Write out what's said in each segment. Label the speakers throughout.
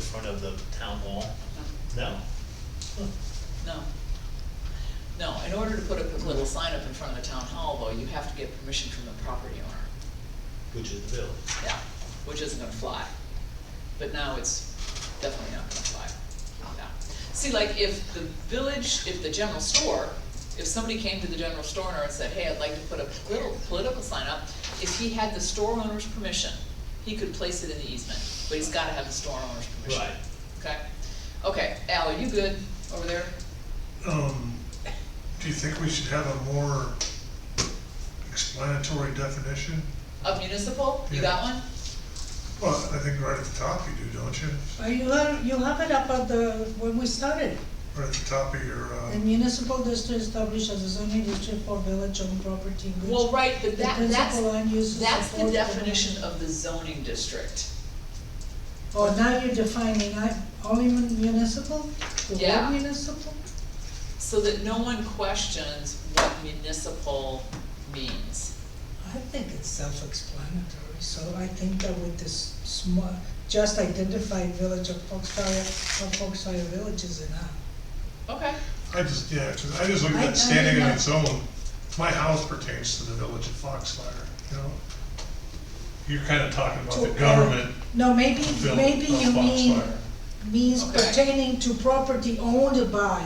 Speaker 1: front of the town hall? No? Huh.
Speaker 2: No. No, in order to put a little sign up in front of the town hall, though, you have to get permission from the property owner,
Speaker 1: Which is the village.
Speaker 2: yeah, which isn't gonna fly. But now it's definitely not gonna fly, yeah. See, like, if the village, if the general store, if somebody came to the general store owner and said, hey, I'd like to put a little political sign up, if he had the store owner's permission, he could place it in the easement, but he's gotta have the store owner's permission.
Speaker 1: Right.
Speaker 2: Okay, okay, Al, are you good over there?
Speaker 3: Um, do you think we should have a more explanatory definition?
Speaker 2: Of municipal, you got one?
Speaker 3: Well, I think right at the top you do, don't you?
Speaker 4: Well, you have, you have it up at the, when we started.
Speaker 3: Right at the top of your,
Speaker 4: The
Speaker 3: uh,
Speaker 4: municipal district established as a zoning district for village-owned property in which.
Speaker 2: Well, right, but
Speaker 4: The
Speaker 2: that, that's,
Speaker 4: principal land uses
Speaker 2: that's the
Speaker 4: support the-
Speaker 2: definition of the zoning district.
Speaker 4: Oh, now you're defining, I, only mun- municipal? The
Speaker 2: Yeah.
Speaker 4: word municipal?
Speaker 2: So that no one questions what municipal means.
Speaker 4: I think it's self-explanatory, so I think that with this small, just identified village of Foxfire, of Foxfire uh, Village is enough.
Speaker 2: Okay,
Speaker 3: I just, yeah, 'cause I just look
Speaker 4: I-
Speaker 3: at
Speaker 4: I
Speaker 3: that standing on
Speaker 4: know.
Speaker 3: its own. My house pertains to the village of Foxfire, you know? You're kinda talking about the
Speaker 4: To- uh,
Speaker 3: government
Speaker 4: No, maybe, maybe
Speaker 3: village
Speaker 4: you
Speaker 3: of
Speaker 4: mean,
Speaker 3: Foxfire.
Speaker 4: means
Speaker 2: Okay.
Speaker 4: pertaining to property owned by,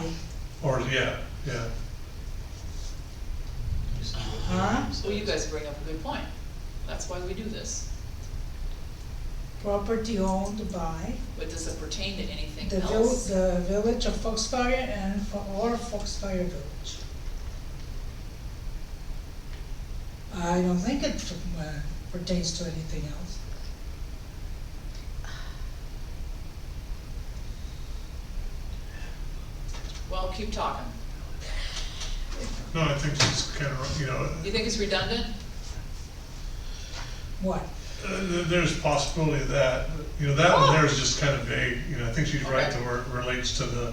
Speaker 3: Or, yeah, yeah,
Speaker 4: huh?
Speaker 2: well, you guys bring up a good point. That's why we do this.
Speaker 4: Property owned by
Speaker 2: But does it pertain to anything
Speaker 4: the vil-
Speaker 2: else?
Speaker 4: the village of Foxfire and for, or Foxfire Village. I don't think it uh, pertains to anything else.
Speaker 2: Well, keep talking.
Speaker 3: no, I think it's kinda, you know,
Speaker 2: You think it's redundant?
Speaker 4: What?
Speaker 3: Uh, th- There's a possibility of that, you know, that
Speaker 4: Oh.
Speaker 3: one there is just kind of vague, you know, I think she's right,
Speaker 2: Okay.
Speaker 3: that where it relates to the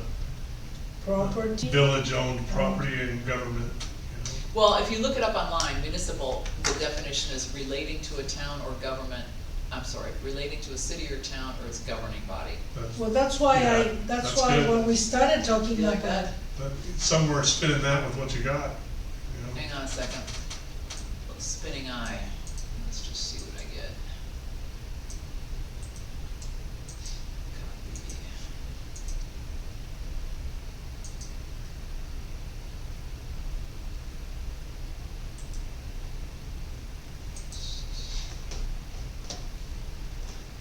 Speaker 4: Property? Uh-huh.
Speaker 3: village-owned property and government, you
Speaker 2: Well, if you look it up online, municipal, the definition is relating to a town or government, I'm sorry, relating to a city or town or its governing body.
Speaker 3: know, that's-
Speaker 4: Well, that's why I,
Speaker 3: Yeah,
Speaker 4: that's
Speaker 3: that's
Speaker 4: why
Speaker 3: good.
Speaker 4: when we started talking
Speaker 2: You like
Speaker 4: about,
Speaker 2: that?
Speaker 3: but somewhere spinning that with what you got, you know?
Speaker 2: Hang on a second. Spinning eye. Let's just see what I get. Copy.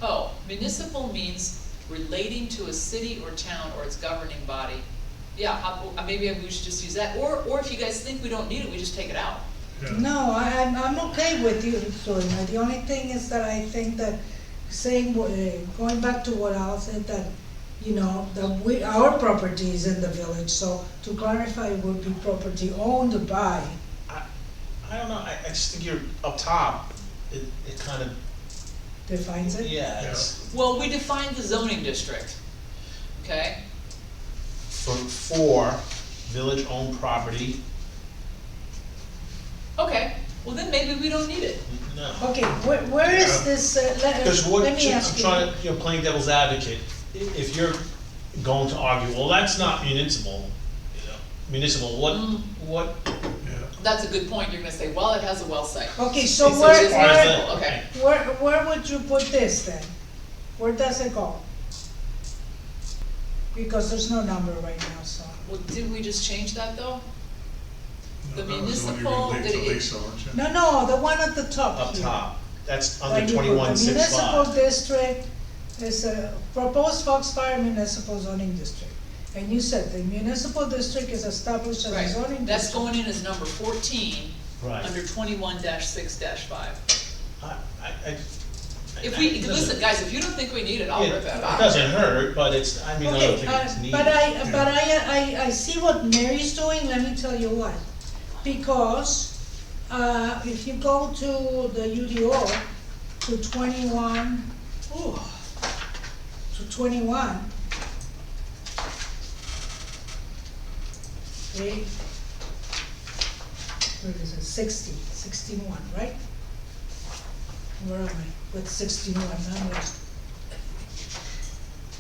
Speaker 2: Oh, municipal means relating to a city or town or its governing body. Yeah, how- uh, maybe we should just use that, or, or if you guys think we don't need it, we just take it out.
Speaker 3: Yeah.
Speaker 4: no, I, I'm, I'm okay with you doing that. The only thing is that I think that saying, wha- eh, going back to what Al said, that, you know, that we, our property is in the village, so to clarify, it would be property owned by.
Speaker 5: I don't know, I, I just think you're up top, it, it kind of,
Speaker 4: defines it?
Speaker 5: yeah, it's
Speaker 2: Well, we defined the zoning district, okay?
Speaker 5: for, for village-owned property,
Speaker 2: Okay, well then maybe we don't need it.
Speaker 5: no.
Speaker 4: Okay, where, where is
Speaker 3: Yeah.
Speaker 4: this, uh,
Speaker 5: Because
Speaker 4: let,
Speaker 5: what,
Speaker 4: let me
Speaker 5: I'm
Speaker 4: ask you.
Speaker 5: trying, to- you know, playing devil's advocate, i- if you're going to argue, well, that's not municipal, you know, municipal, what,
Speaker 2: Mm.
Speaker 5: what?
Speaker 3: Yeah,
Speaker 2: That's a good point, you're gonna say, well, it has a well site.
Speaker 4: Okay, so
Speaker 2: It's-
Speaker 4: where,
Speaker 2: it's
Speaker 5: Why is
Speaker 4: where,
Speaker 5: that?
Speaker 2: okay.
Speaker 4: where, where would you put this then? Where does it go? Because there's no number right now, so.
Speaker 2: Well, didn't we just change that though? The
Speaker 3: That was one you're gonna
Speaker 2: municipal-
Speaker 3: leave
Speaker 2: did
Speaker 3: to
Speaker 2: it-
Speaker 3: Lisa, weren't you?
Speaker 4: No, no, the one at the top
Speaker 5: Up
Speaker 4: here.
Speaker 5: top, that's
Speaker 4: Where
Speaker 5: under
Speaker 4: you put
Speaker 5: twenty-one
Speaker 4: the
Speaker 5: six
Speaker 4: Municipal
Speaker 5: five.
Speaker 4: district is a proposed Foxfire municipal zoning district. And you said the municipal district is established as a
Speaker 2: Right,
Speaker 4: zoning district.
Speaker 2: that's going in as number fourteen,
Speaker 5: Right,
Speaker 2: under twenty-one six five.
Speaker 5: I, I, I.
Speaker 2: If
Speaker 5: I-
Speaker 2: we,
Speaker 5: it doesn't-
Speaker 2: listen, guys, if you don't think we need it, I'll
Speaker 5: It
Speaker 2: rip that
Speaker 5: it
Speaker 2: out.
Speaker 5: doesn't hurt, but it's, I mean, I don't
Speaker 4: Okay,
Speaker 5: think
Speaker 4: uh,
Speaker 5: it's needed.
Speaker 4: but I, but I, I, I see what Mary's doing, let me tell you why. Because, uh, if you go to the UDO, to twenty-one, ooh, to twenty-one. Okay. Where is it, sixty, sixteen-one, right? Where am I, with sixteen-one, I'm with